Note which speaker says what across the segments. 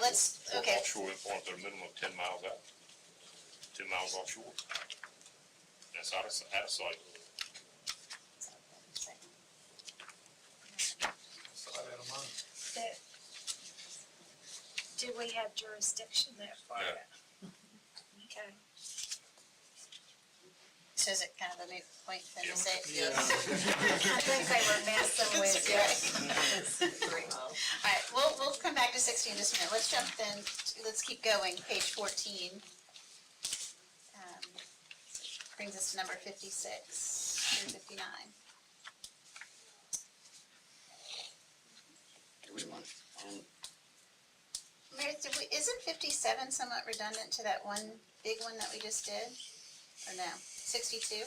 Speaker 1: let's,
Speaker 2: For
Speaker 1: okay,
Speaker 2: Offshore employment, they're minimum of ten miles out, ten miles offshore. That's out of, s- out of sight.
Speaker 3: that, do we have jurisdiction that far?
Speaker 2: No.
Speaker 3: Okay.
Speaker 1: so is it kind of a moot point then to say?
Speaker 4: Yeah.
Speaker 3: I think they were messing with you.
Speaker 1: All right, we'll, we'll come back to sixteen in just a minute. Let's jump then, let's keep going, page fourteen. Um, Brings us to number fifty-six through fifty-nine. Meredith, did we, isn't fifty-seven somewhat redundant to that one big one that we just did? Or no, sixty-two?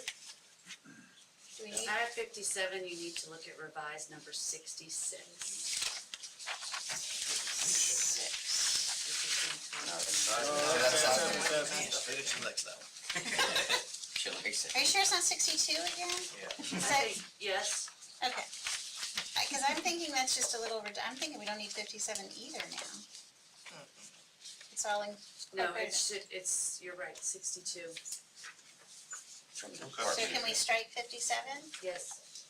Speaker 1: Do we need,
Speaker 5: Out of fifty-seven, you need to look at revised number sixty-six.
Speaker 1: six?
Speaker 5: which is in total.
Speaker 4: She likes that one. She likes it.
Speaker 1: Are you sure it's not sixty-two again?
Speaker 5: I
Speaker 1: Is that-
Speaker 5: think, yes,
Speaker 1: Okay. Because I'm thinking that's just a little, red- I'm thinking we don't need fifty-seven either now. It's all in,
Speaker 5: no,
Speaker 1: Okay.
Speaker 5: it should, it's, you're right, sixty-two,
Speaker 6: From the
Speaker 1: so can we
Speaker 6: department,
Speaker 1: strike fifty-seven?
Speaker 5: yes.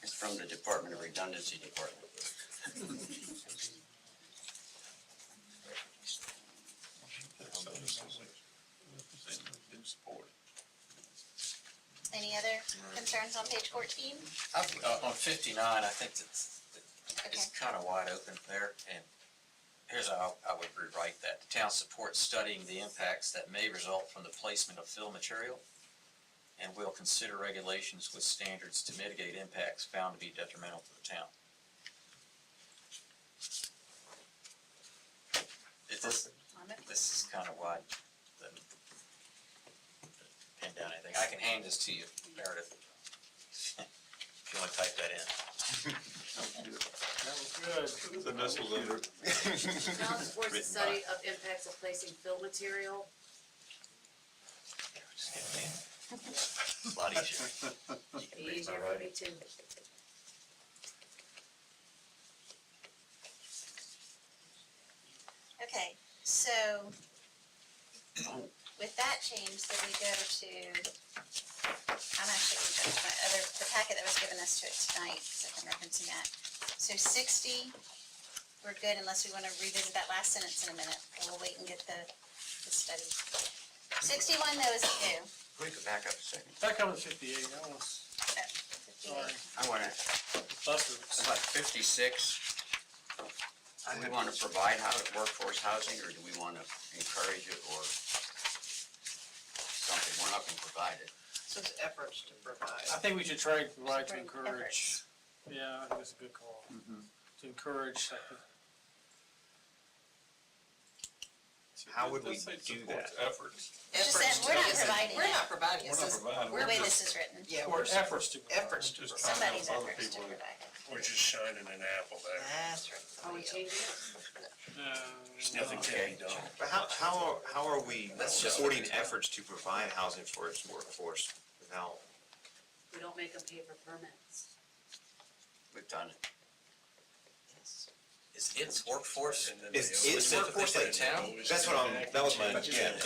Speaker 6: it's from the Department of Redundancy Department.
Speaker 2: Do support.
Speaker 1: Any other concerns on page fourteen?
Speaker 4: I think, uh, on fifty-nine, I think it's,
Speaker 1: Okay,
Speaker 4: it's kind of wide open there, and here's how I would rewrite that. The town supports studying the impacts that may result from the placement of fill material and will consider regulations with standards to mitigate impacts found to be detrimental to the town. It just,
Speaker 1: I'm okay.
Speaker 4: this is kind of wide, the, pin down anything, I can hand this to you, Meredith. If you want to type that in.
Speaker 2: The missiles under.
Speaker 5: Town supports the
Speaker 2: Written
Speaker 5: study of impacts of placing fill material.
Speaker 4: Here, just get it in. Lot easier. You
Speaker 5: Be
Speaker 4: can read my
Speaker 5: easier for
Speaker 4: writing.
Speaker 5: me to,
Speaker 1: Okay, so with that change, then we go to, I'm actually going to go to my other, the packet that was given us to it tonight, because I'm referencing that. So sixty, we're good unless we want to revisit that last sentence in a minute. We'll wait and get the, the study. Sixty-one though is new.
Speaker 6: Can we go back up a second?
Speaker 7: Back up to fifty-eight, I was, sorry,
Speaker 6: I
Speaker 1: 58.
Speaker 6: want to,
Speaker 7: buses.
Speaker 6: about fifty-six. Do we want to provide hou- workforce housing, or do we want to encourage it, or something? We're not going to provide it.
Speaker 8: Since efforts to
Speaker 7: I
Speaker 8: provide.
Speaker 7: think we should try, and provide to
Speaker 1: Try
Speaker 7: encourage,
Speaker 1: efforts.
Speaker 7: yeah, I think that's a good call.
Speaker 9: Mm-hmm.
Speaker 7: To encourage, I think,
Speaker 6: How would we
Speaker 2: Let's say
Speaker 6: do
Speaker 2: supports Efforts.
Speaker 1: Just
Speaker 8: Efforts
Speaker 1: that we're
Speaker 8: to-
Speaker 1: not
Speaker 8: yes, it-
Speaker 1: providing
Speaker 8: We're
Speaker 1: it.
Speaker 8: not providing,
Speaker 2: We're
Speaker 8: it
Speaker 2: not
Speaker 8: says,
Speaker 2: providing,
Speaker 1: the
Speaker 2: we're
Speaker 1: way
Speaker 2: just,
Speaker 1: this is written.
Speaker 8: yeah,
Speaker 7: or
Speaker 8: we're,
Speaker 7: efforts to. provide.
Speaker 8: efforts to
Speaker 2: Just trying
Speaker 8: provide.
Speaker 2: to
Speaker 1: Somebody's
Speaker 2: help other
Speaker 1: efforts to
Speaker 2: people.
Speaker 1: provide it.
Speaker 10: We're just shining an apple there.
Speaker 8: That's right.
Speaker 5: are Oh, we changing it?
Speaker 7: Uh,
Speaker 10: Nothing can be done.
Speaker 9: But how, how, are- how are we
Speaker 4: That's just-
Speaker 9: supporting efforts to provide housing for its workforce without?
Speaker 5: we don't make them pay for permits.
Speaker 6: We've done it.
Speaker 4: Is its workforce
Speaker 10: And then
Speaker 9: Is-
Speaker 10: they
Speaker 9: is
Speaker 10: always-
Speaker 4: workforce like town?
Speaker 9: That's what I'm- that was my- yeah.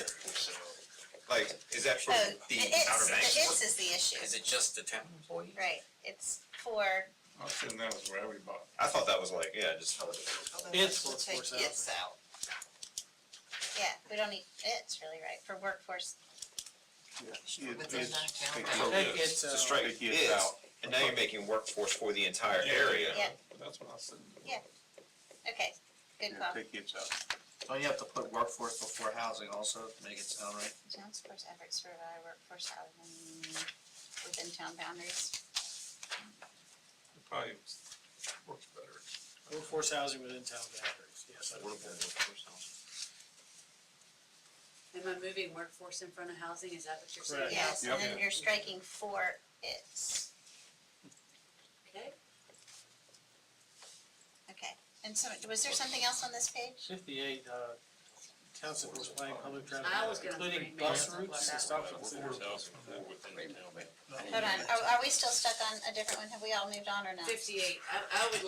Speaker 9: Like, is that for
Speaker 1: Oh,
Speaker 9: the
Speaker 1: the it's,
Speaker 9: Outer
Speaker 1: the
Speaker 9: Banks?
Speaker 1: it's is the
Speaker 4: Is
Speaker 1: issue,
Speaker 4: it just the town employee?
Speaker 1: right? It's for
Speaker 2: I assume that was where everybody.
Speaker 9: I thought that was like, yeah, just.
Speaker 8: Well, then
Speaker 7: It's
Speaker 8: let's
Speaker 7: workforce
Speaker 8: take It's out.
Speaker 1: Yeah, we don't need, it's really right, for workforce.
Speaker 8: Within that town.
Speaker 7: I think it's,
Speaker 9: To
Speaker 7: uh,
Speaker 9: strike is, and now you're making workforce for the entire
Speaker 2: Yeah,
Speaker 9: area.
Speaker 1: Yeah,
Speaker 2: That's what I said.
Speaker 1: okay, good call.
Speaker 2: Take it out.
Speaker 4: Don't you have to put workforce before housing also to make it sound right?
Speaker 1: Town supports efforts to provide workforce housing within town boundaries.
Speaker 2: Probably works better.
Speaker 7: workforce housing within town boundaries, yes. I think that-
Speaker 5: Am I moving workforce in front of housing, is that what you're
Speaker 7: Correct.
Speaker 5: saying?
Speaker 1: Yes, and then
Speaker 2: Yeah.
Speaker 1: you're striking for its,
Speaker 5: Okay,
Speaker 1: okay. And so, was there something else on this page?
Speaker 7: Fifty-eight, uh, town supports planning public traffic,
Speaker 5: I was gonna bring
Speaker 7: including bus
Speaker 5: Meredith up on
Speaker 7: routes and
Speaker 5: that
Speaker 7: stop
Speaker 2: Workforce
Speaker 7: considers.
Speaker 2: housing more within the town.
Speaker 6: I didn't
Speaker 1: Hold on,
Speaker 6: know that.
Speaker 1: are, are we still stuck on a different one? Have we all moved on or not?
Speaker 5: fifty-eight, I, I would